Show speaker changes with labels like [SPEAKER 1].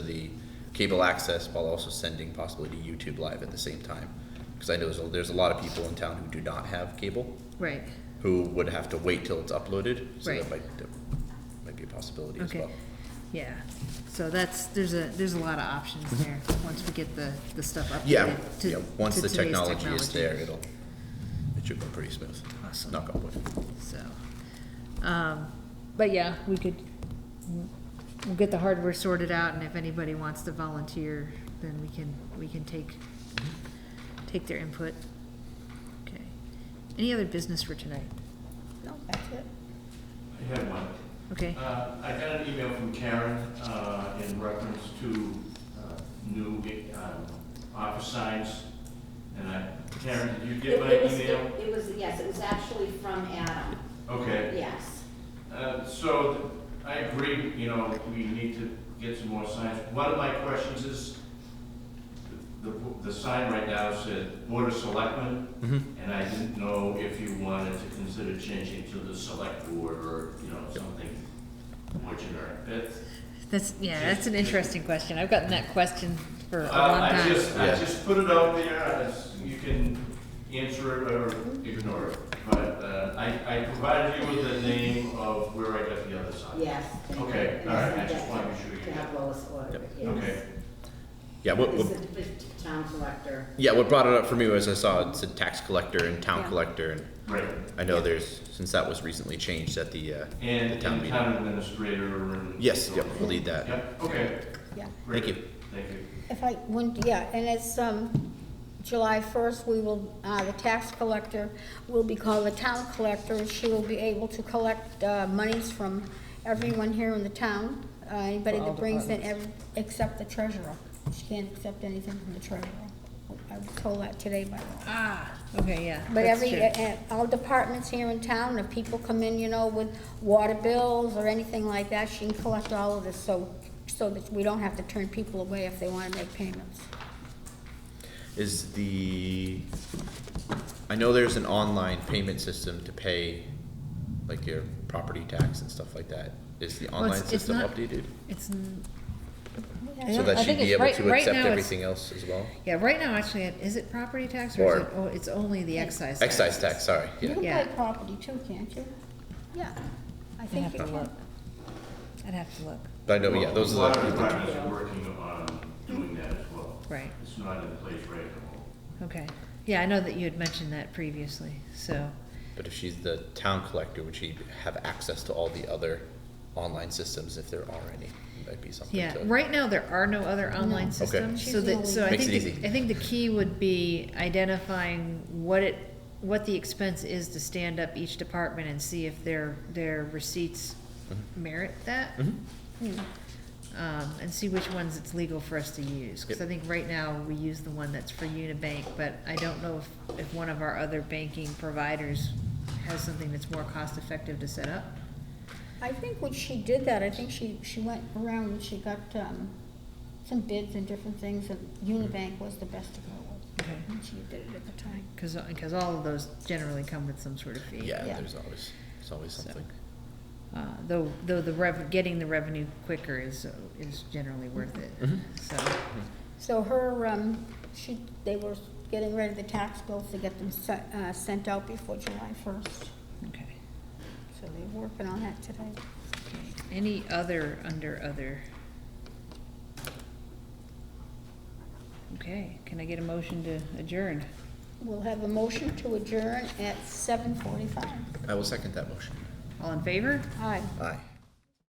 [SPEAKER 1] cable access while also sending possibly to YouTube Live at the same time. Because I know there's a, there's a lot of people in town who do not have cable,
[SPEAKER 2] Right,
[SPEAKER 1] who would have to wait till it's uploaded. So that
[SPEAKER 2] Right.
[SPEAKER 1] might, that might be a possibility as
[SPEAKER 2] okay,
[SPEAKER 1] well.
[SPEAKER 2] yeah, so that's, there's a, there's a lot of options there, once we get the, the stuff updated.
[SPEAKER 1] Mm-hmm. Yeah,
[SPEAKER 2] to-
[SPEAKER 1] yeah, once
[SPEAKER 2] to
[SPEAKER 1] the
[SPEAKER 2] today's
[SPEAKER 1] technology is there,
[SPEAKER 2] technology.
[SPEAKER 1] it'll, it should go pretty smooth.
[SPEAKER 2] Awesome.
[SPEAKER 1] Knock on wood.
[SPEAKER 2] So, um, but yeah, we could, we'll get the hardware sorted out, and if anybody wants to volunteer, then we can, we can take,
[SPEAKER 1] Mm-hmm.
[SPEAKER 2] take their input. Okay, any other business for tonight?
[SPEAKER 3] No, that's it.
[SPEAKER 4] I have one.
[SPEAKER 2] Okay,
[SPEAKER 4] Uh, I got an email from Karen uh, in reference to uh, new um, office signs. And I, Karen, did you get
[SPEAKER 5] It-
[SPEAKER 4] my
[SPEAKER 5] it was-
[SPEAKER 4] email?
[SPEAKER 5] it- It was, yes, it was actually from Adam,
[SPEAKER 4] Okay.
[SPEAKER 5] yes.
[SPEAKER 4] Uh, So I agree, you know, we need to get some more signs. One of my questions is, the, the sign right now says Board of Selectmen, and I didn't know if you wanted to consider changing to the Select Board or, you know, something more generic. That's-
[SPEAKER 2] that's, yeah, that's an interesting question, I've gotten that question for a
[SPEAKER 4] Uh,
[SPEAKER 2] long
[SPEAKER 4] I
[SPEAKER 2] time.
[SPEAKER 4] just, I
[SPEAKER 1] Yeah.
[SPEAKER 4] just put it out there, I just- you can answer it or ignore it. But uh, I, I provided you with the name of where I got the other sign.
[SPEAKER 5] Yes.
[SPEAKER 4] Okay, all right, I just wanted to be sure you
[SPEAKER 5] To have Lois order it, yes.
[SPEAKER 4] Okay.
[SPEAKER 1] Yeah, what,
[SPEAKER 5] It's
[SPEAKER 1] what,
[SPEAKER 5] the the town collector.
[SPEAKER 1] yeah, what brought it up for me was I saw it said tax collector and town
[SPEAKER 3] Yeah.
[SPEAKER 1] collector and
[SPEAKER 4] Right,
[SPEAKER 1] I know there's, since that was recently changed at the, uh,
[SPEAKER 4] and
[SPEAKER 1] the
[SPEAKER 4] and
[SPEAKER 1] town
[SPEAKER 4] town
[SPEAKER 1] meeting.
[SPEAKER 4] administrator and.
[SPEAKER 1] Yes, yep, we'll need that.
[SPEAKER 4] Yep, okay.
[SPEAKER 3] Yeah.
[SPEAKER 4] great.
[SPEAKER 1] Thank you.
[SPEAKER 4] Thank you.
[SPEAKER 3] If I, when, yeah, and it's, um, July first, we will, uh, the tax collector will be called the town collector. She will be able to collect, uh, monies from everyone here in the town, uh, anybody
[SPEAKER 2] For all
[SPEAKER 3] that brings in, ev- except the treasurer. She can't accept anything from the treasurer. I was told that today by law.
[SPEAKER 2] Ah, okay, yeah. e-,
[SPEAKER 3] But
[SPEAKER 2] that's
[SPEAKER 3] every,
[SPEAKER 2] true.
[SPEAKER 3] uh, uh, all departments here in town, if people come in, you know, with water bills or anything like that, she can collect all of this, so, so that we don't have to turn people away if they wanna make payments.
[SPEAKER 1] Is the, I know there's an online payment system to pay like your property tax and stuff like that. Is the
[SPEAKER 2] Well, it's-
[SPEAKER 1] online
[SPEAKER 2] it's
[SPEAKER 1] system
[SPEAKER 2] not-
[SPEAKER 1] updated?
[SPEAKER 2] It's, n- I
[SPEAKER 1] So
[SPEAKER 2] don't-
[SPEAKER 1] that
[SPEAKER 2] I
[SPEAKER 1] she'd
[SPEAKER 2] think
[SPEAKER 1] be
[SPEAKER 2] it's
[SPEAKER 1] able
[SPEAKER 2] right-
[SPEAKER 1] to
[SPEAKER 2] right
[SPEAKER 1] accept
[SPEAKER 2] now it's-
[SPEAKER 1] everything else as well?
[SPEAKER 2] yeah, right now, actually, it- is it property tax or is it,
[SPEAKER 1] Or-
[SPEAKER 2] oh, it's only the excise tax?
[SPEAKER 1] Excise tax, sorry,
[SPEAKER 3] You
[SPEAKER 1] yeah.
[SPEAKER 3] can
[SPEAKER 2] Yeah.
[SPEAKER 3] buy property too, can't you? Yeah, I think
[SPEAKER 2] have
[SPEAKER 3] you
[SPEAKER 2] to
[SPEAKER 3] can.
[SPEAKER 2] look. I'd have to look,
[SPEAKER 1] But I know, yeah, those
[SPEAKER 4] Well,
[SPEAKER 1] are
[SPEAKER 4] A lot of
[SPEAKER 1] the,
[SPEAKER 4] departments are working on doing that as well.
[SPEAKER 2] right,
[SPEAKER 4] It's not in place right now.
[SPEAKER 2] okay. Yeah, I know that you had mentioned that previously, so,
[SPEAKER 1] but if she's the town collector, would she have access to all the other online systems if there are any? That'd be something
[SPEAKER 2] yeah.
[SPEAKER 1] to.
[SPEAKER 2] Right now, there are no other online systems,
[SPEAKER 3] She's
[SPEAKER 2] so
[SPEAKER 3] the
[SPEAKER 2] that, so I
[SPEAKER 1] Makes it
[SPEAKER 2] think, the-
[SPEAKER 1] easy.
[SPEAKER 2] I think the key would be identifying what it, what the expense is to stand up each department and see if their, their receipts merit that.
[SPEAKER 1] Mhm.
[SPEAKER 3] Hmm.
[SPEAKER 2] um, and see which ones it's legal for us to use. Because I
[SPEAKER 1] Yep.
[SPEAKER 2] think right now, we use the one that's for Unibank, but I don't know if, if one of our other banking providers has something that's more cost-effective to set up.
[SPEAKER 3] I think when she did that, I think she, she went around and she got, um, some bids and different things, and Unibank was the best to go with.
[SPEAKER 2] Okay.
[SPEAKER 3] And she did it at the time.
[SPEAKER 2] Because, all of those generally come with some sort of fee.
[SPEAKER 1] Yeah,
[SPEAKER 3] Yeah.
[SPEAKER 1] there's always, there's always
[SPEAKER 2] So,
[SPEAKER 1] something.
[SPEAKER 2] Uh, though, though the rev, getting the revenue quicker is, is generally worth it,
[SPEAKER 1] Mm-hmm.
[SPEAKER 2] so,
[SPEAKER 3] So her, um, she, they were getting rid of the tax bills to get them se- uh, sent out before July first.
[SPEAKER 2] okay.
[SPEAKER 3] So they're working on that today.
[SPEAKER 2] Any other under other? Okay, can I get a motion to adjourn?
[SPEAKER 3] We'll have a motion to adjourn at seven forty-five.
[SPEAKER 1] I will second that motion.
[SPEAKER 2] All in favor?
[SPEAKER 3] Aye.
[SPEAKER 1] Aye.